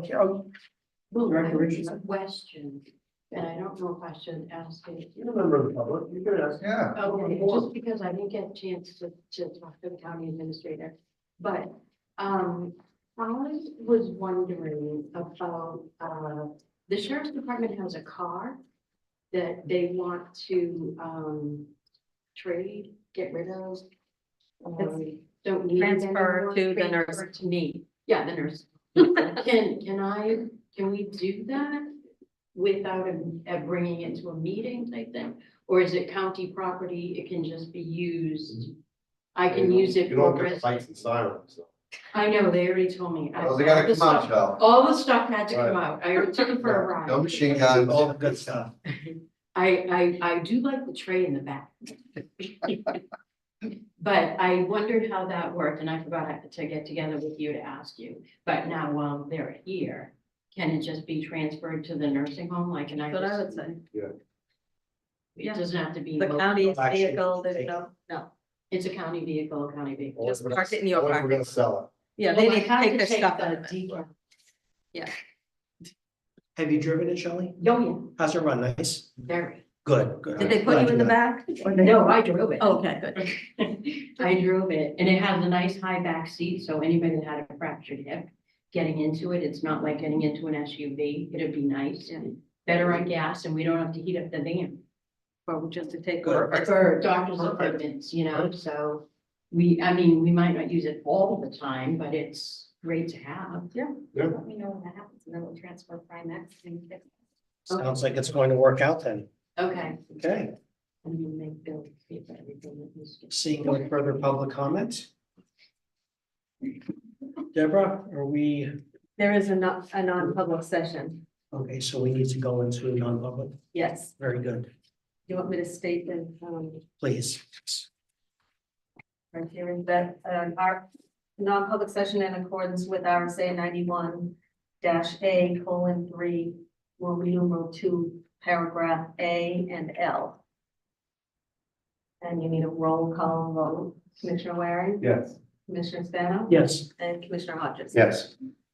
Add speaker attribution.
Speaker 1: Okay, oh,
Speaker 2: Well, I
Speaker 1: Director
Speaker 2: have a
Speaker 1: Richardson?
Speaker 2: question, and I don't know if I should ask it.
Speaker 3: You're a member of the public, you could ask.
Speaker 4: Yeah,
Speaker 2: Okay,
Speaker 3: Sure.
Speaker 2: just because I didn't get a chance to, to talk to the county administrator, but, um, I was wondering about, uh, the sheriff's department has a car that they want to, um, trade, get rid of. um, Don't need. it
Speaker 5: Transfer
Speaker 2: anymore,
Speaker 5: to the nurse.
Speaker 2: transfer To me, yeah, the nurse. Can, can I, can we do that without a- a bringing it to a meeting type thing? Or is it county property? It can just be used? I can use it
Speaker 3: You
Speaker 2: for
Speaker 3: don't get
Speaker 2: rest.
Speaker 3: fights and sirens. so.
Speaker 2: I know, they already told me. I-
Speaker 4: well, they gotta
Speaker 2: the
Speaker 4: come out, Joe.
Speaker 2: stuff- All the stuff had to come
Speaker 3: Right.
Speaker 2: out. I already took it for a ride.
Speaker 4: No machine guns.
Speaker 3: All the good stuff.
Speaker 2: I, I, I do like the tray in the back. But I wondered how that worked and I forgot to get together with you to ask you. But now while they're here, can it just be transferred to the nursing home? Like, can I
Speaker 5: That's what I would
Speaker 2: just,
Speaker 5: say.
Speaker 2: it doesn't have to be,
Speaker 5: The
Speaker 2: mo-
Speaker 5: county's
Speaker 3: Actually,
Speaker 5: vehicle, there's
Speaker 3: take-
Speaker 5: no, no,
Speaker 2: it's a county vehicle, a county vehicle.
Speaker 3: Or
Speaker 5: Just
Speaker 3: if we're
Speaker 5: park it in
Speaker 3: gonna-
Speaker 5: your
Speaker 3: or if We're
Speaker 5: parking
Speaker 3: gonna sell
Speaker 5: yeah,
Speaker 2: Well,
Speaker 5: they
Speaker 2: I
Speaker 5: need to
Speaker 2: have
Speaker 5: take their
Speaker 2: take
Speaker 5: stuff
Speaker 2: the Oh,
Speaker 5: out of it.
Speaker 2: decal.
Speaker 6: Have you driven it, Shelley?
Speaker 2: Oh, yeah,
Speaker 6: How's it run? Nice?
Speaker 2: very.
Speaker 6: Good, good.
Speaker 5: Did they put you in the back?
Speaker 2: No, I drove it.
Speaker 5: Okay, good.
Speaker 2: I drove it and it has a nice high back seat, so anybody that had a fractured hip, getting into it, it's not like getting into an SUV, it'd be nice and better on gas and we don't have to heat up the van
Speaker 5: Or just to take.
Speaker 6: Good.
Speaker 5: over.
Speaker 2: for doctor's
Speaker 3: Perfect.
Speaker 2: appointments, you know, so we, I mean, we might not use it all the time, but it's great to have.
Speaker 5: Yeah.
Speaker 3: Yeah.
Speaker 2: Let me know when that happens and then we'll transfer Primex and.
Speaker 6: Sounds like it's going to work out then.
Speaker 2: Okay.
Speaker 6: Okay,
Speaker 2: And we make Bill pay for everything that he's.
Speaker 6: seeing no further public comment? Deborah, are we,
Speaker 5: There is a non, a non-public session,
Speaker 6: okay, so we need to go into non-public.
Speaker 5: yes.
Speaker 6: Very good,
Speaker 5: You want me to state the, um,
Speaker 6: please.
Speaker 5: right here that, um, our non-public session in accordance with RSA ninety-one dash A colon three, will be numeral two, paragraph A and L. And you need a roll call vote, Commissioner Waring,
Speaker 3: it. Yes.
Speaker 5: Commissioner Spano,
Speaker 6: Yes.
Speaker 5: and Commissioner Hodges.
Speaker 3: Yes.